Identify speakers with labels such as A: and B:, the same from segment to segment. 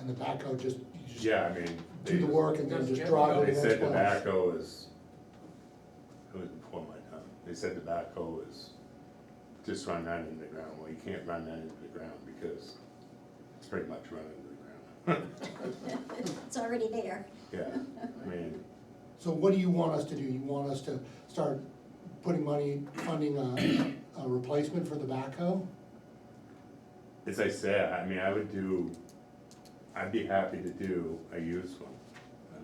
A: and the backhoe just, you just
B: Yeah, I mean,
A: do the
B: they,
A: work and then
C: Doesn't
A: just
C: get
A: drive it
C: one.
B: they
A: to the
B: said
A: next place.
B: tobacco is, it was before my time, they said tobacco is, just run that into the ground, well, you can't run that into the ground because it's pretty much run into the ground.
D: It's already there.
B: Yeah, I mean,
A: So what do you want us to do? You want us to start putting money, funding a, a replacement for the backhoe?
B: as I said, I mean, I would do, I'd be happy to do a used one, I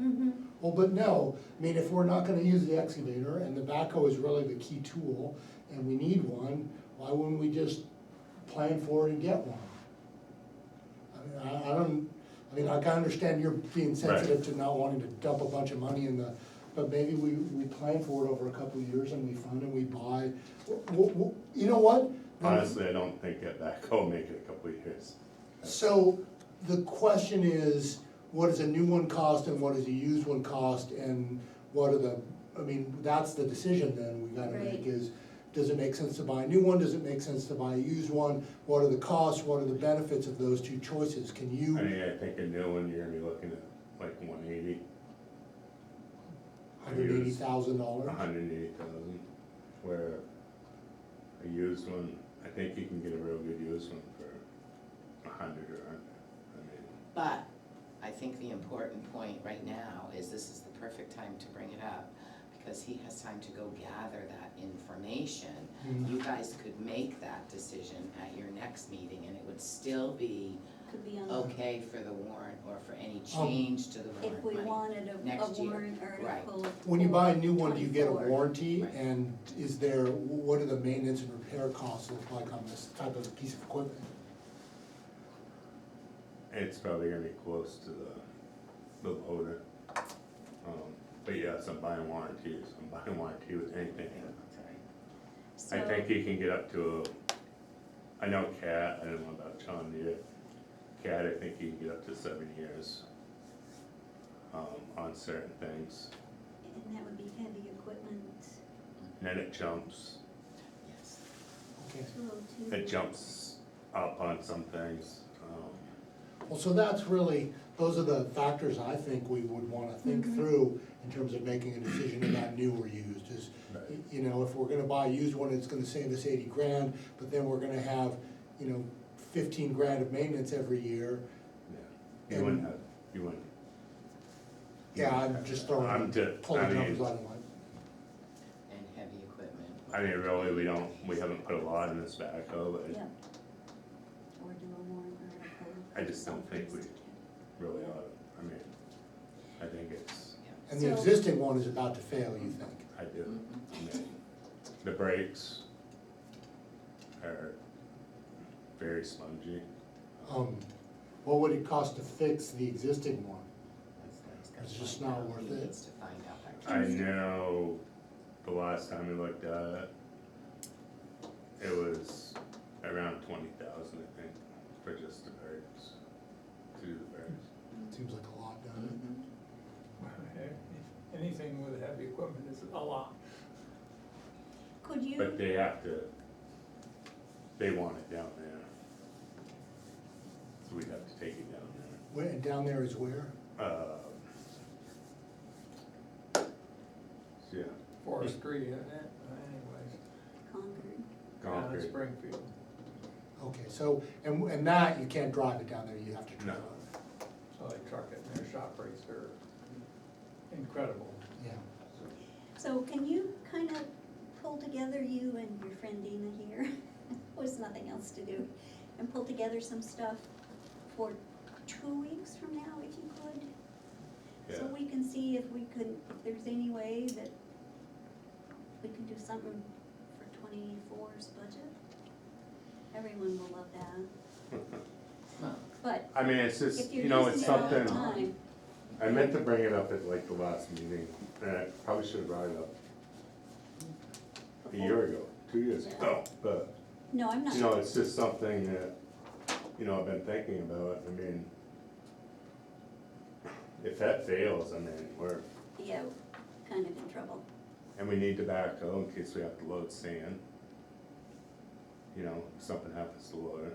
B: mean,
D: Mhm.
A: Well, but no, I mean, if we're not gonna use the excavator and the backhoe is really the key tool and we need one, why wouldn't we just plan for it and get one? I mean, I, I don't, I mean, I can understand you're being sensitive to not wanting to dump a bunch of money in the, but maybe we, we plan for it over a couple of years and we fund and we buy. Wh- wh- wh- You know what?
B: honestly, I don't think that backhoe make it a couple of years.
A: So the question is, what does a new one cost and what does a used one cost and what are the, I mean, that's the decision then we gotta make
D: Right.
A: is, does it make sense to buy a new one, does it make sense to buy a used one? What are the costs, what are the benefits of those two choices? Can
B: I
A: you?
B: mean, I think a new one, you're gonna be looking at like one eighty,
A: Hundred eighty thousand dollars?
B: hundred and eighty thousand, where a used one, I think you can get a real good used one for a hundred or under, I mean,
C: But I think the important point right now is this is the perfect time to bring it up, because he has time to go gather that information.
A: Mm-hmm.
C: You guys could make that decision at your next meeting, and it would still be
D: Could be on, the-
C: okay for the warrant or for any
A: Um,
C: change to the
D: if
C: warrant
D: we
C: money.
D: wanted a- a
C: Next year.
D: warrant
C: Right.
D: article.
A: When you buy a new
D: for
A: one, do you get a
D: 24.
A: warranty?
C: Right.
A: And is there, what do the maintenance and repair costs look like on this type of piece of equipment?
B: it's probably gonna be close to the, the loader. Um, But yes, I'm buying warranties, I'm buying warranty with anything.
C: Okay.
B: I
D: So-
B: think you can get up to, a. I know cat, I don't know about John Deere, cat, I think you can get up to seven years um, on certain things,
D: And that would be heavy equipment,
B: and then it jumps.
C: Yes.
A: Okay.
D: two oh two.
B: it jumps up on some things. um,
A: Well, so that's really, those are the factors I think we would wanna think
D: Mhm.
A: through in terms of making a decision about new or used, is,
B: Right.
A: you know, if we're gonna buy a used one, it's gonna save us eighty grand, but then we're gonna have, you know, fifteen grand of maintenance every year.
B: yeah. You wouldn't have, you wouldn't.
A: Yeah, I'm just throwing,
B: I'm ju- I
A: pulling numbers
B: mean,
A: out of my,
C: And heavy equipment.
B: I mean, really, we don't, we haven't put a lot in this backhoe, but
D: Yeah. Or do a warrant article.
B: I just don't think we-
D: Something
B: really, ought to. I mean, I think it's,
A: and the
D: So-
A: existing one is about to fail, you think?
B: I do.
C: Mhm.
B: I mean, The brakes are very spongy.
A: Um, what would it cost to fix the existing one?
C: That's what he's gotta
A: It's just
C: find
A: not
C: out.
A: worth
C: He
A: it. Uh,
C: needs to find out that.
B: I know the last time we looked at it, it was around twenty thousand, I think, for just the birds, to do the birds.
A: Seems like a lot, doesn't it?
C: Mhm.
E: Anything with heavy equipment is a lot.
D: Could
B: But
D: you,
B: they have to, they want it down there. So we'd have to take it down there.
A: Where, and down there is where?
B: Uh, so Yeah,
E: Forestry, isn't it? anyways.
D: Concord,
E: down in
B: concrete.
E: Springfield.
A: Okay, so, and, and that, you can't drive it down there, you have to
B: No.
A: drive it,
E: So they truck it and their shop rates are incredible.
A: yeah.
D: so can you kind of pull together, you and your friend Dina here, was nothing else to do, and pull together some stuff for two weeks from now, if you could? So
B: Yeah,
D: we can see if we could, if there's any way that we can do something for 24's budget. Everyone will love that,
C: Well,
D: but
B: I mean, it's just,
D: if you're
B: you know,
D: using
B: it's
D: it all the
B: something.
D: time,
B: I meant to bring it up at like the last meeting, and I probably should have brought it up a year ago, two years ago, but,
D: no, I'm
B: you know,
D: not,
B: it's just something that, you know, I've been thinking about, I mean, if that fails, I mean, we're,
D: yeah, kind of in trouble.
B: and we need tobacco in case we have to load sand. You know, if something happens to loader,